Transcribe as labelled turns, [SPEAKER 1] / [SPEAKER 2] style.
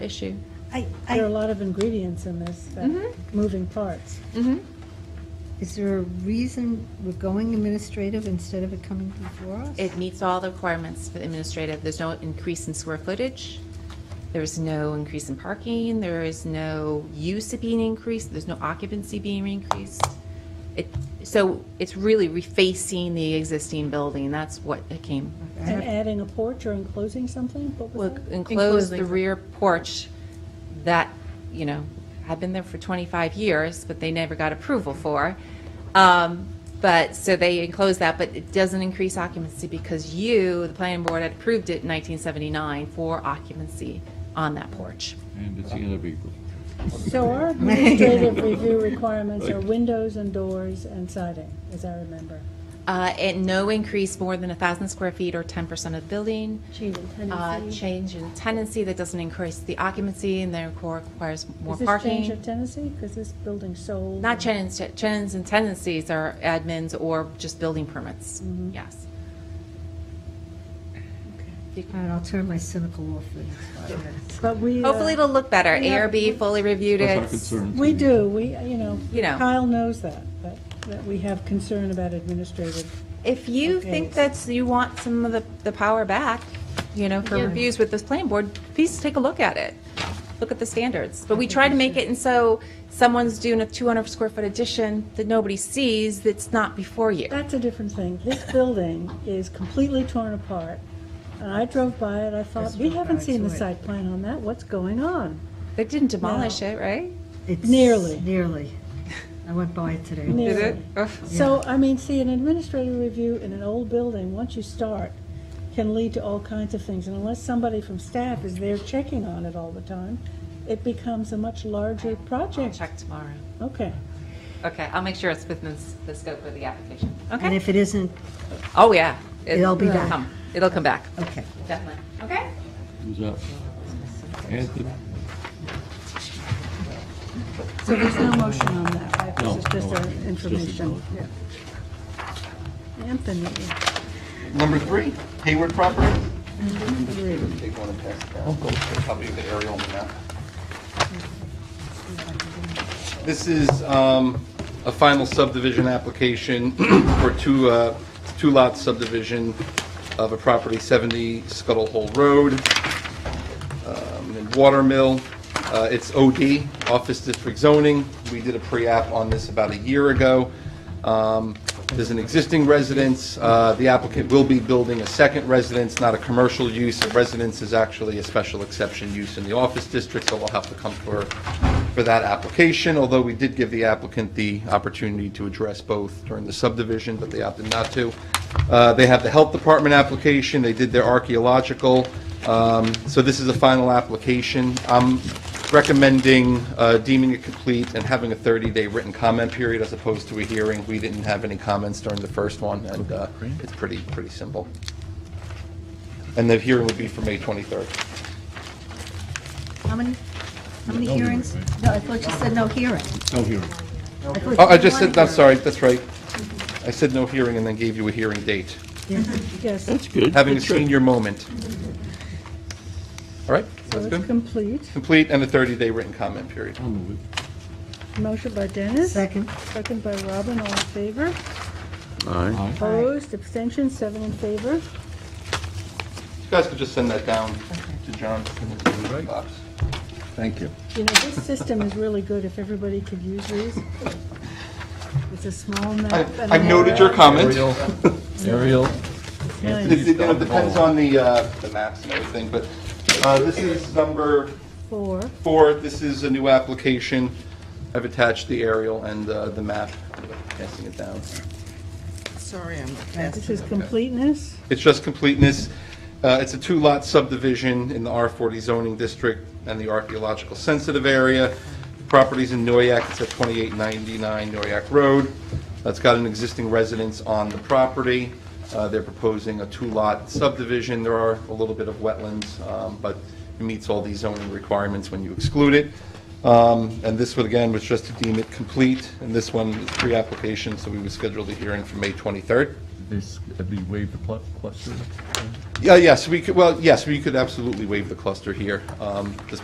[SPEAKER 1] issue.
[SPEAKER 2] I,
[SPEAKER 3] There are a
[SPEAKER 2] I,
[SPEAKER 3] lot of ingredients in this, that-
[SPEAKER 1] Mm-hmm.
[SPEAKER 3] moving parts.
[SPEAKER 2] is there a reason we're going administrative instead of it coming before us?
[SPEAKER 1] It meets all the requirements for administrative. There's no increase in square footage. There's no increase in parking. There is no use being increased. There's no occupancy being increased. It, so it's really refacing the existing building. That's what it came.
[SPEAKER 3] And adding a porch or enclosing something, what was
[SPEAKER 1] We'll
[SPEAKER 3] that?
[SPEAKER 1] enclose the rear porch that, you know, had been there for 25 years, but they never got approval for. Um, But, so they enclose that, but it doesn't increase occupancy because you, the planning board, had approved it in 1979 for occupancy on that porch.
[SPEAKER 4] And it's the end of April.
[SPEAKER 3] So our administrative review requirements are windows and doors and siding, as I remember.
[SPEAKER 1] Uh, And no increase more than 1,000 square feet or 10% of the building.
[SPEAKER 5] Change in
[SPEAKER 1] Uh,
[SPEAKER 5] tendency.
[SPEAKER 1] Change in tenancy that doesn't increase the occupancy and therefore requires more
[SPEAKER 3] Is this
[SPEAKER 1] parking.
[SPEAKER 3] change of tenancy? Because this building sold.
[SPEAKER 1] Not tenants, tenants and tenancies are admins or just building permits, yes.
[SPEAKER 2] All right, I'll turn my cynical off for the next five minutes.
[SPEAKER 3] But we. uh,
[SPEAKER 1] Hopefully it'll look better,
[SPEAKER 3] Yeah.
[SPEAKER 1] ARB fully reviewed
[SPEAKER 4] That's our
[SPEAKER 1] it.
[SPEAKER 4] concern.
[SPEAKER 3] We do, we, you know.
[SPEAKER 1] You know.
[SPEAKER 3] Kyle knows that, but that we have concern about administrative.
[SPEAKER 1] If you
[SPEAKER 3] Okay.
[SPEAKER 1] think that's, you want some of the, the power back, you know, for
[SPEAKER 5] Yeah.
[SPEAKER 1] reviews with this planning board, please take a look at it. Look at the standards, but we try to make it, and so someone's doing a two hundred square foot addition that nobody sees, that's not before you.
[SPEAKER 3] That's a different thing. This building is completely torn apart. And I drove by it, I thought, we haven't seen the site plan on that, what's going on?
[SPEAKER 1] They didn't demolish it, right?
[SPEAKER 2] It's
[SPEAKER 3] Nearly.
[SPEAKER 2] Nearly. I went by it today.
[SPEAKER 1] Did
[SPEAKER 3] Nearly.
[SPEAKER 1] it? Ugh.
[SPEAKER 3] So, I mean, see, an administrative review in an old building, once you start, can lead to all kinds of things. And unless somebody from staff is there checking on it all the time, it becomes a much larger
[SPEAKER 1] I'll
[SPEAKER 3] project.
[SPEAKER 1] check tomorrow.
[SPEAKER 3] Okay.
[SPEAKER 1] Okay, I'll make sure it's within s- the scope of the application. Okay.
[SPEAKER 2] And if it isn't,
[SPEAKER 1] Oh, yeah. It-
[SPEAKER 2] It'll be
[SPEAKER 1] it'll
[SPEAKER 2] back.
[SPEAKER 1] come. It'll come back,
[SPEAKER 2] okay.
[SPEAKER 1] definitely. Okay?
[SPEAKER 4] Who's up? Anthony?
[SPEAKER 3] So there's no motion on that, right?
[SPEAKER 4] No,
[SPEAKER 3] This is just
[SPEAKER 4] no,
[SPEAKER 3] uh,
[SPEAKER 4] it's just
[SPEAKER 3] information. Yeah. Anthony,
[SPEAKER 6] Number three, Hayward property. Take one and pass it down. Copy of the aerial on the map. This is um, a final subdivision application for two, uh, two lot subdivision of a property 70 Scuttle Hole Road um, in Watermill. Uh, It's OD, Office District Zoning. We did a pre-app on this about a year ago. Um, There's an existing residence. Uh, The applicant will be building a second residence, not a commercial use. A residence is actually a special exception use in the office district, so we'll have to come for, for that application, although we did give the applicant the opportunity to address both during the subdivision, but they opted not to. Uh, They have the Health Department application. They did their archaeological. Um, So this is a final application. I'm recommending uh, deeming it complete and having a 30-day written comment period as opposed to a hearing. We didn't have any comments during the first one, and uh, it's pretty, pretty simple. And the hearing would be for May 23rd.
[SPEAKER 2] How many, how many hearings? No, I thought you said no hearing.
[SPEAKER 4] No
[SPEAKER 2] I
[SPEAKER 4] hearing.
[SPEAKER 2] thought
[SPEAKER 6] Oh, I
[SPEAKER 2] you
[SPEAKER 6] just
[SPEAKER 2] wanted
[SPEAKER 6] said, I'm
[SPEAKER 2] hearing.
[SPEAKER 6] sorry, that's right. I said no hearing and then gave you a hearing date,
[SPEAKER 3] yes,
[SPEAKER 4] That's good.
[SPEAKER 6] having a
[SPEAKER 4] That's good.
[SPEAKER 6] senior moment. All right,
[SPEAKER 3] so
[SPEAKER 6] that's
[SPEAKER 3] it's
[SPEAKER 6] good.
[SPEAKER 3] complete.
[SPEAKER 6] Complete and a 30-day written comment period.
[SPEAKER 4] I'll move it.
[SPEAKER 3] Motion by Dennis.
[SPEAKER 2] Second.
[SPEAKER 3] Second by Robin, all in favor?
[SPEAKER 4] Aye.
[SPEAKER 3] Opposed, abstentions, seven in favor.
[SPEAKER 6] You guys could just send that down to John. Box.
[SPEAKER 4] Thank you.
[SPEAKER 3] You know, this system is really good if everybody could use these. It's a small
[SPEAKER 6] I-
[SPEAKER 3] map. and
[SPEAKER 6] I've
[SPEAKER 3] an
[SPEAKER 6] noted your
[SPEAKER 3] area.
[SPEAKER 6] comment.
[SPEAKER 4] Ariel?
[SPEAKER 6] It it, you know, depends on the, uh, the maps and everything, but uh, this is number
[SPEAKER 3] Four,
[SPEAKER 6] four. This is a new application. I've attached the aerial and uh, the map, passing it down.
[SPEAKER 3] this is completeness.
[SPEAKER 6] It's just completeness. Uh, It's a two-lot subdivision in the R40 zoning district and the archaeological sensitive area. Properties in Noyak, it's at 2899 Noyak Road. That's got an existing residence on the property. Uh, They're proposing a two-lot subdivision. There are a little bit of wetlands, um, but it meets all these zoning requirements when you exclude it. Um, And this one, again, was just to deem it complete, and this one is pre-application, so we would schedule the hearing for May 23rd.
[SPEAKER 4] This, have you waived the plu- cluster?
[SPEAKER 6] Yeah, yes, we could, well, yes, we could absolutely waive the cluster here. Um, This